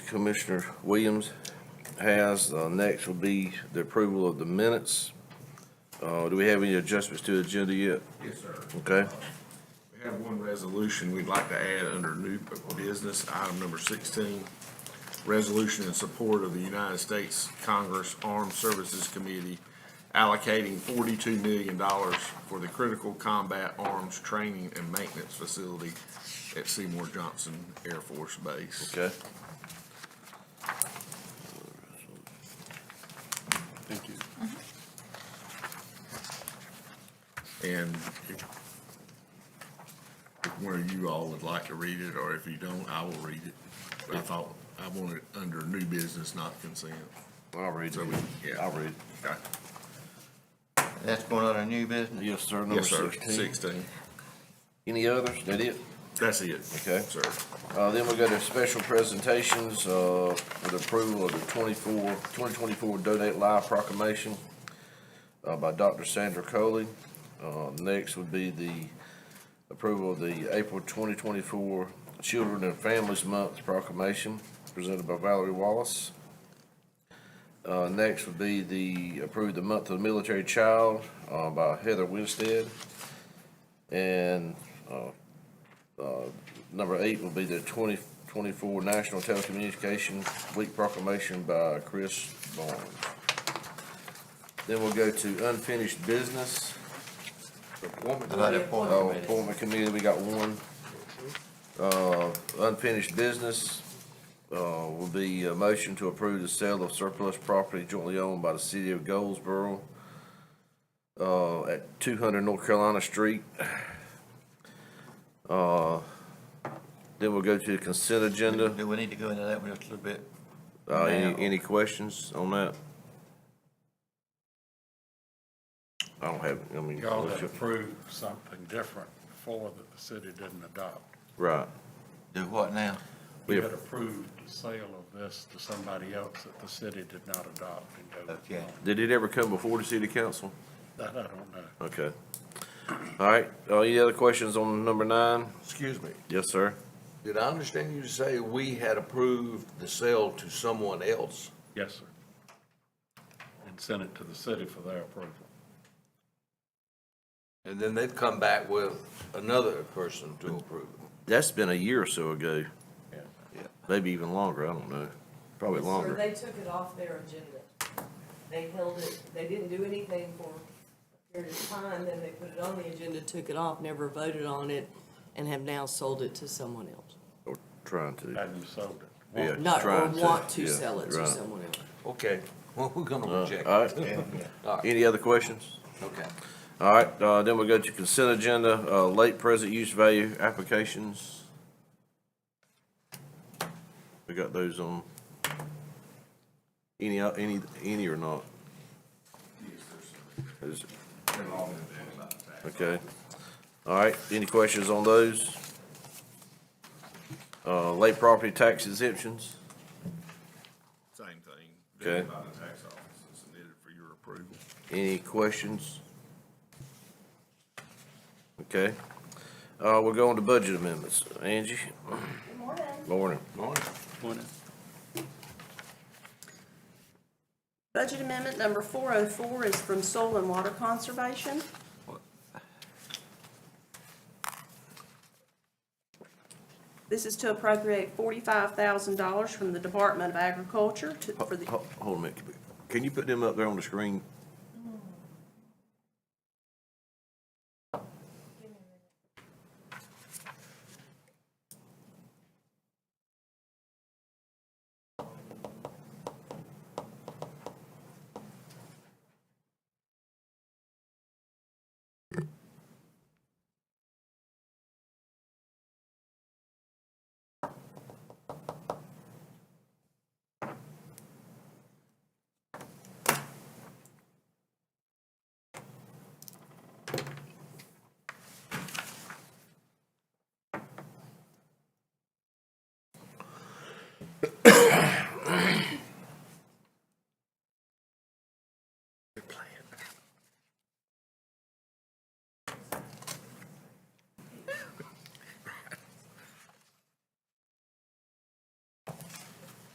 Commissioner Williams has. Uh, Next will be the approval of the minutes. Uh, Do we have any adjustments to the agenda yet? Yes, sir. Okay, We have one resolution we'd like to add under new business, item number sixteen. Resolution in support of the United States Congress Armed Services Committee allocating forty-two million dollars for the Critical Combat Arms Training and Maintenance Facility at Seymour Johnson Air Force Base. okay. Thank you. And if if one of you all would like to read it, or if you don't, I will read it. But I thought, I wanted it under new business, not consent. I'll read So it. we- yeah. I'll read it. Okay. That's going on a new business? Yes, sir, number Yes, sir, sixteen. sixteen. Any others? That it? That's it. Okay. Sir, Uh, Then we go to special presentations uh, for the approval of the 24 2024 Donate Live proclamation uh, by Dr. Sandra Coley. Uh, Next would be the approval of the April 2024 Children and Families Month proclamation presented by Valerie Wallace. Uh, Next would be the approve the month of the military child uh, by Heather Winstead. And Number eight will be the twenty twenty-four National Telecommunication Week proclamation by Chris Barnes. Then we'll go to unfinished business. Appointment How about committee? appointment Oh, committee? Appointment committee, we got one. Uh, unfinished business, uh, will be a motion to approve the sale of surplus property jointly owned by the city of Goldsboro, uh, at two hundred North Carolina Street. Uh, Then we'll go to the consent agenda. Do we need to go into that one just a little bit? Uh, Now. any, any questions on that? I don't have, I mean, Y'all what's to your- approve something different before that the city didn't adopt. right. Do what now? We We have- had approved the sale of this to somebody else that the city did not adopt. and don't Okay. want. Did it ever come before the city council? That I don't know. Okay. All right, uh, any other questions on number nine? Excuse me, Yes, sir. did I understand you to say we had approved the sale to someone else? Yes, sir. And sent it to the city for their approval. And then they've come back with another person to approve it? That's been a year or so ago, Yeah. maybe even longer, I don't know, probably Yes, sir, longer. They took it off their agenda. They held it, they didn't do anything for a period of time, then they put it on the agenda, took it off, never voted on it, and have now sold it to someone else. Or trying to, Hadn't sold it. yeah, No, or trying to. want to yeah, sell it to right. someone else. Okay, well, we're gonna reject All it. right, All right, any other questions? okay. All right, uh, then we'll go to consent agenda, uh, late present use value applications. We got those on. Any, uh, any, any or not? Is- Okay. All right, any questions on those? Uh, late property tax exemptions, same thing. Okay. By the tax office, it's needed for your approval. any questions? Okay, uh, we'll go on to budget amendments. Angie? Good morning. Morning. Morning. Budget amendment number four oh four is from Soil and Water Conservation. This is to appropriate forty-five thousand dollars from the Department of Agriculture to, for the, Ho- Hold a minute. Can you put them up there on the screen?